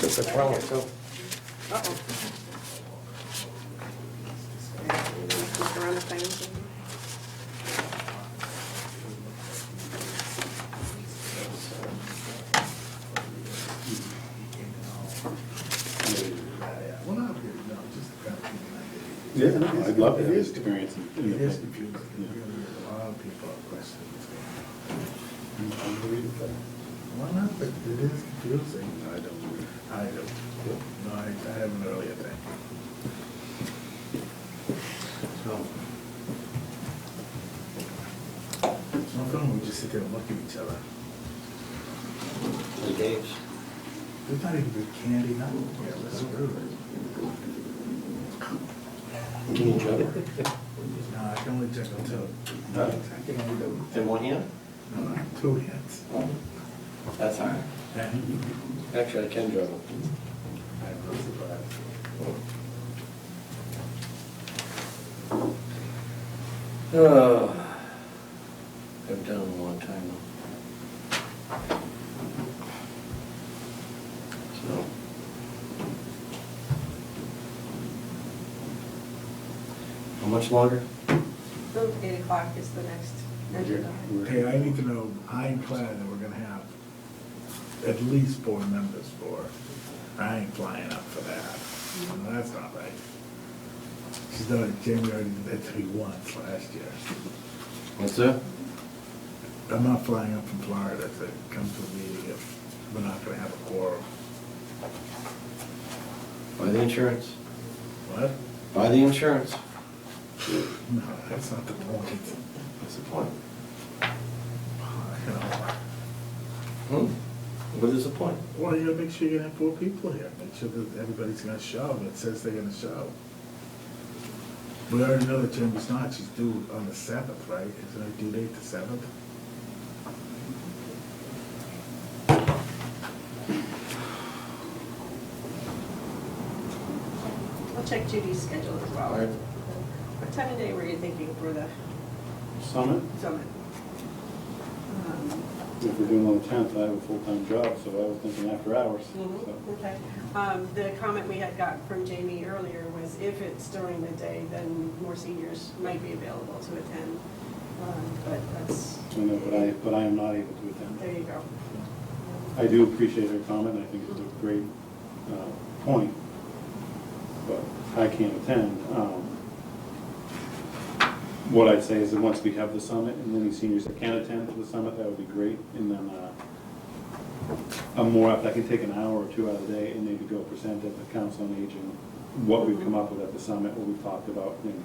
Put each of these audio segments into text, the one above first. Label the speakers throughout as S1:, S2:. S1: That's a problem, so.
S2: Uh-oh. Look around the things.
S3: Yeah, no, I'd love to have this experience. in
S4: It
S3: the-
S4: is confusing, a lot of people have questions.
S3: Unbelievable.
S4: Why not, but it is confusing.
S3: I don't.
S4: I don't, no, I, I have an earlier thing. So. It's not fun, we just sit there and look at each other.
S1: The games.
S4: There's not even good candy, nothing. Yeah, that's true.
S1: Do you enjoy it?
S4: No, I can only drink until,
S3: Huh?
S4: I can only do,
S1: In one hand?
S4: no, no, two hands.
S1: That's all right.
S4: And
S1: Actually, I can juggle.
S4: I have those glasses.
S1: Oh, I've done it a long time now. So. How much longer?
S2: So Eight o'clock is the next agenda.
S4: Hey, I need to know ironclad that we're gonna have at least four members for. I ain't flying up for that. No, That's not right. She's done it, Jamie already did that three once last year.
S1: What's that?
S4: I'm not flying up from Florida to come to a meeting if we're not gonna have a quorum.
S1: Buy the insurance.
S4: What?
S1: Buy the insurance.
S4: No, that's not the point.
S1: That's the point.
S4: You know,
S1: Hmm? What is the point?
S4: Well, you gotta make sure you have four people here, make sure that everybody's gonna show, it says they're gonna show. We already know that Jamie's not, she's due on the seventh, right? Isn't her due date the seventh?
S2: I'll check Judy's schedule as well.
S1: All right.
S2: What time of day were you thinking for the
S3: Summit,
S2: summit? Um,
S3: if we're doing on the tenth, I have a full-time job, so I was thinking after hours. so.
S2: Mhm, Okay. Um, The comment we had got from Jamie earlier was if it's during the day, then more seniors might be available to attend. Um, But that's,
S3: I know, but I, but I am not able to attend.
S2: there you go.
S3: I do appreciate her comment, I think it's a great uh, point, but I can't attend. Um, What I'd say is that once we have the summit, and any seniors that can attend to the summit, that would be great, and then uh, I'm more, apt- I can take an hour or two out of the day and maybe go present at the council on aging, what we've come up with at the summit, what we've talked about, and,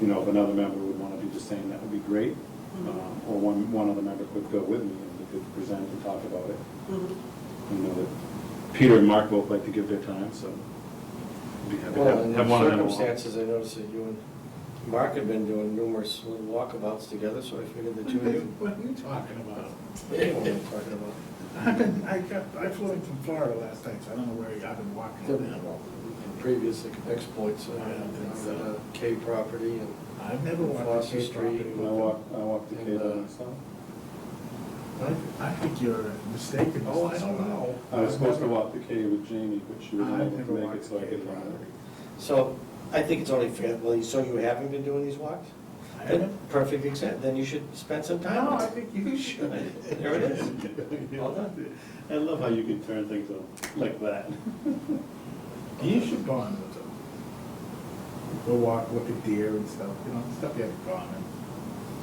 S3: you know, if another member would want to do the same, that would be great, Um, or one, one other member could go with me and we could present and talk about it.
S2: Mhm.
S3: I know that Peter and Mark both like to give their time, so be happy to
S1: Well, in
S3: have- have one of them. along.
S1: circumstances, I noticed that you and Mark have been doing numerous little walkabouts together, so I figured the two of you.
S4: What are you talking about?
S1: Yeah,
S4: Mm-hmm.
S1: what I'm talking about.
S4: I've been, I got, I flew in from Florida last night, so I don't know where, I've been walking around.
S1: Previous exploits, uh, uh, K property and.
S4: I've never walked
S1: Foster
S4: the Cape
S1: Street.
S4: property.
S3: I walked, I walked the
S1: And,
S3: Cape by
S1: uh,
S3: myself.
S4: I I think you're mistaken.
S1: Oh, I don't know.
S3: I was supposed to walk the Cape with Jamie, but
S4: I've
S3: she was not able
S4: never
S3: to make
S4: walked
S3: it, so
S4: the Cape
S3: I could run
S4: property.
S3: it.
S1: So I think it's only fair, well, so you haven't been doing these walks?
S4: I haven't.
S1: Perfect example, then you should spend some time.
S4: No,
S1: on
S4: I
S1: it.
S4: think you should.
S1: There it is. Well done.
S3: I love how you can turn things on like that.
S4: You should bond with them. Go walk, look at deer and stuff, you know, stuff you have in common.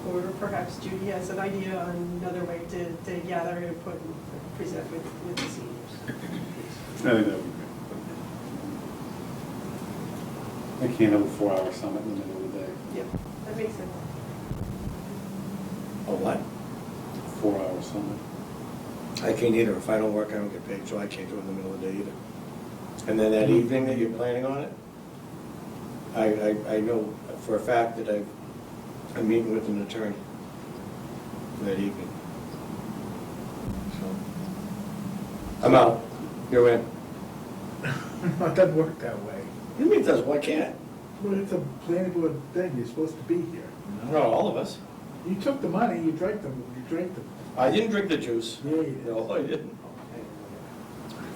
S2: Or perhaps Judy has an idea on another way to, to gather input and present with, with the seniors.
S3: I think that would be great. I can't have a four-hour summit in the middle of the day,
S2: Yep, that makes sense.
S1: Oh, what?
S3: four-hour summit.
S1: I can't either, if I don't work, I don't get paid, so I can't do it in the middle of the day either. And then that evening that you're planning on it, I, I, I know for a fact that I, I'm meeting with an attorney that evening. So, I'm out, you're in.
S4: So, it doesn't work that way.
S1: You mean, does, why can't?
S4: Well, it's a planning board thing, you're supposed to be here, you
S1: Not
S4: know?
S1: all of us.
S4: You took the money, you drank the, you drank the,
S1: I didn't drink the juice.
S4: Yeah, you did.
S1: No, I didn't.